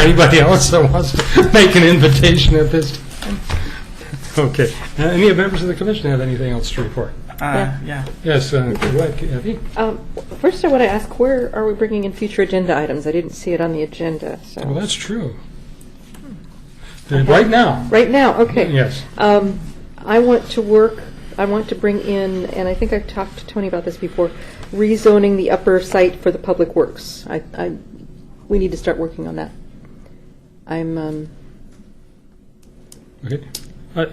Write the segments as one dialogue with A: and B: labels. A: anybody else that wants to make an invitation at this time. Okay. Uh, Any of members of the commission have anything else to report?
B: Uh, yeah.
A: Yes, uh, go ahead, Kathy.
C: Um, First, I want to ask, where are we bringing in future agenda items? I didn't see it on the agenda,
A: Well,
C: so.
A: that's true. Uh, Right now,
C: Right now, okay.
A: yes.
C: Um, I want to work, I want to bring in, and I think I've talked to Tony about this before, rezoning the upper site for the public works. I, I, we need to start working on that. I'm, um,
A: Okay. I-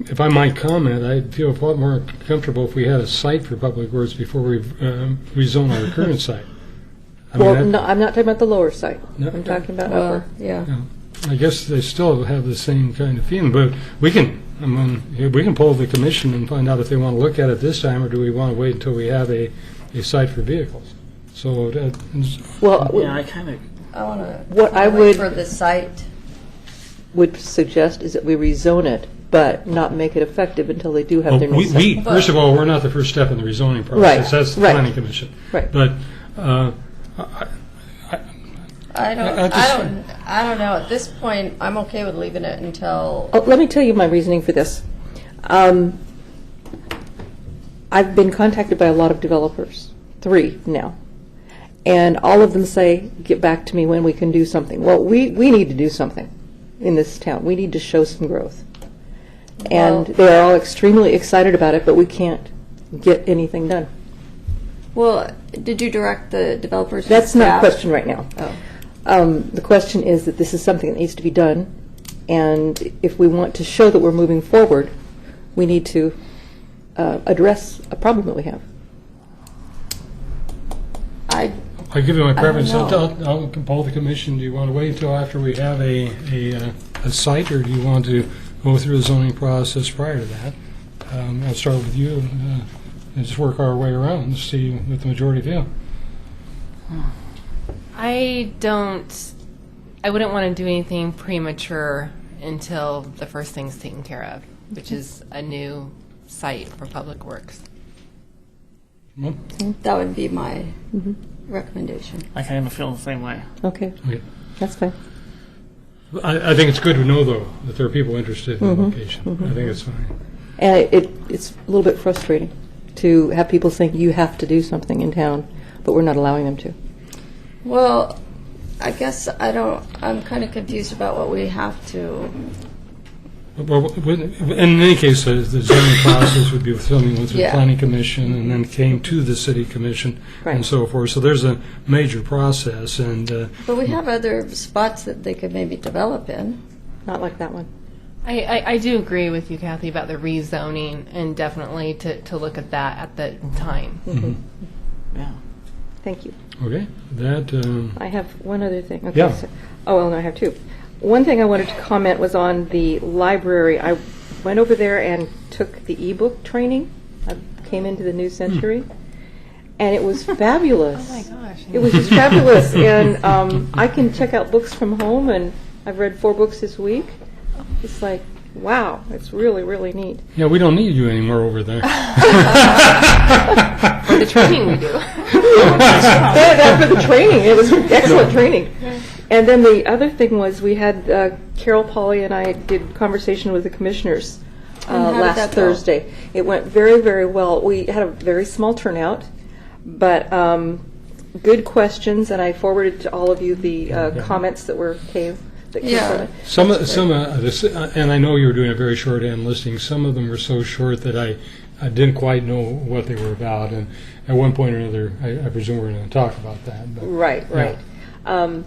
A: If I might comment, I'd feel a lot more comfortable if we had a site for public works before we um, rezone our current site. I mean,
C: well,
A: that-
C: no, I'm not talking about the lower site.
A: No.
C: I'm talking about
D: Well,
C: upper.
D: yeah.
A: Yeah, I guess they still have the same kind of feeling, but we can, I mean, we can poll the commission and find out if they want to look at it this time, or do we want to wait until we have a, a site for vehicles? So, uh, that is-
B: Yeah,
C: Well,
B: I kind of.
D: I want to.
C: What I would-
D: For the site,
C: would suggest is that we rezone it, but not make it effective until they do have
A: Well,
C: their new
A: we,
C: site.
A: we, first of all, we're not the first step in the rezoning process.
C: Right,
A: That's the
C: right.
A: planning commission.
C: Right.
A: But, uh, I-
D: I don't,
A: I- I
D: I
A: just-
D: don't, I don't know. At this point, I'm okay with leaving it until,
C: Oh, let me tell you my reasoning for this. Um, I've been contacted by a lot of developers, three now, and all of them say, "Get back to me when we can do something." Well, we we need to do something in this town. We need to show some growth, and
D: Well-
C: they are all extremely excited about it, but we can't get anything done.
E: Well, did you direct the developers? to
C: That's not a
E: staff?
C: question right now.
E: Oh.
C: Um, the question is that this is something that needs to be done, and if we want to show that we're moving forward, we need to uh, address a problem that we have.
E: I,
A: I'll give you my preference.
E: know.
A: I'll, I'll I'll poll the commission. Do you want to wait until after we have a, a, uh, a site, or do you want to go through the zoning process prior to that? Um, I'll start with you, uh, and just work our way around and see what the majority feel.
F: I don't. I wouldn't want to do anything premature until the first thing's taken care of, which is a new site for public works.
A: Well,
E: that would be my
C: Mm-hmm.
E: recommendation.
B: I kind of feel the same way.
C: Okay,
A: okay.
C: that's fine.
A: I, I think it's good to know, though, that there are people interested in the location. I think it's fine.
C: And it- it, it's a little bit frustrating to have people think you have to do something in town, but we're not allowing them to.
D: well, I guess I don't, I'm kind of confused about what we have to.
A: Well, w- w- in any case, the the zoning process would be something with the
D: Yeah.
A: planning commission, and then came to the city commission, and
C: Right.
A: so forth. So there's a major process, and uh,
D: But we have other spots that they could maybe develop in.
C: Not like that one.
F: I, I, I do agree with you, Kathy, about the rezoning and definitely to, to look at that at the time.
B: Yeah.
C: Thank you.
A: Okay, that, um,
C: I have one other thing. Okay,
A: Yeah.
C: so- Oh, well, no, I have two. One thing I wanted to comment was on the library. I went over there and took the ebook training. I came into the new century, and it was fabulous.
F: Oh my gosh.
C: It was just fabulous, and um, I can check out books from home, and I've read four books this week. It's like, wow, it's really, really neat.
A: yeah, we don't need you anymore over there.
F: The training we do.
C: that, that for the training. It was excellent training. And then the other thing was we had uh, Carol Polly and I did conversation with the commissioners uh,
D: how did
C: last
D: that go?
C: Thursday. It went very very well. We had a very small turnout, but um, good questions. And I forwarded to all of you the uh, comments that were came that came
D: Yeah.
C: from it.
A: Some, of- some, uh, this- uh, and I know you were doing a very shorthand listing. Some of them were so short that I, I didn't quite know what they were about. And at one point or another, I, I presume we're going to talk about that. But oh,
C: Right,
A: Yeah.
C: right. Um,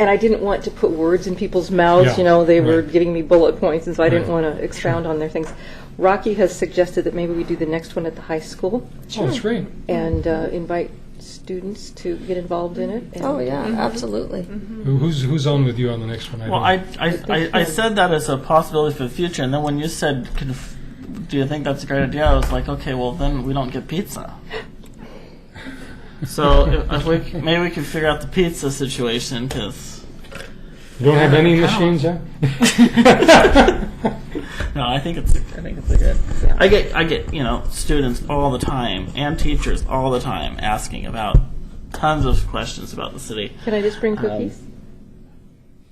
C: and I didn't want to put words in people's mouths.
A: Yeah,
C: you know, they were
A: right.
C: giving me bullet points, and so I didn't
A: Right.
C: want to expound on their things. Rocky has suggested that maybe we do the next one at the high school
A: Oh, that's great.
C: and uh, invite students to get involved in it. And
D: Oh, yeah, absolutely.
A: Who- Who's, who's on with you on the next one?
B: Well,
A: don't-
B: I, I, I, I said that as a possibility for the future, and then when you said, conf- do you think that's a great idea? I was like, okay, well, then we don't get pizza. So if, if we, c- maybe we can figure out the pizza situation, because,
A: You don't have any machines there?
B: no, I think it's, I think it's a good. I get, I get, you know, students all the time, and teachers all the time, asking about tons of questions about the city.
A: Um,
C: Can I just bring cookies?